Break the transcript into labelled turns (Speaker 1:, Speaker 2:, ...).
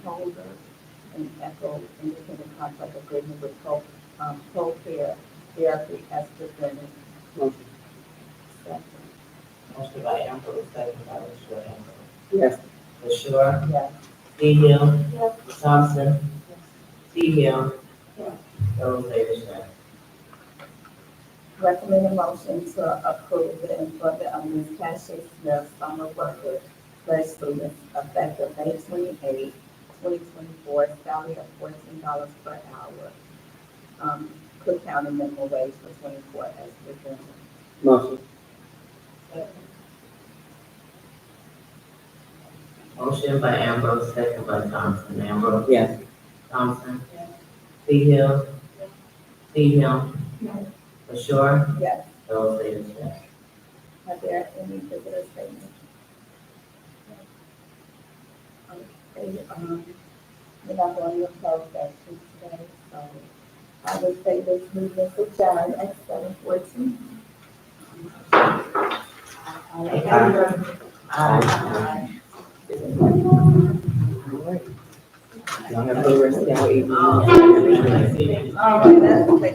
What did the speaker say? Speaker 1: holder and echo independent contract agreement with Pro, um, Procare Therapy as presented.
Speaker 2: Motion.
Speaker 1: Second.
Speaker 3: Motion by Ambrose, second by LaShaw Ambrose.
Speaker 2: Yes.
Speaker 3: LaShaw,
Speaker 1: Yes.
Speaker 3: D Hill,
Speaker 1: Yes.
Speaker 3: Thompson, T Hill,
Speaker 1: Yes.
Speaker 3: Those Davis, yes.
Speaker 1: Recommend a motion to approve the employment of Ms. Tasha Smith, summer worker, slash student, effective May 28, 2024, salary of $14 per hour. Um, Cook County minimum wage for 24 as presented.
Speaker 2: Motion.
Speaker 3: Motion by Ambrose, second by Thompson. Ambrose,
Speaker 2: Yes.
Speaker 3: Thompson, T Hill, T Hill, LaShaw,
Speaker 1: Yes.
Speaker 3: Those Davis, yes.
Speaker 1: Are there any visitor statements? Okay, um, we're not going to close session today, so I would say this meeting is adjourned at seven fourteen.
Speaker 2: Y'all have a good rest of y'all evening.
Speaker 3: Oh, I see that.
Speaker 1: All right, that's-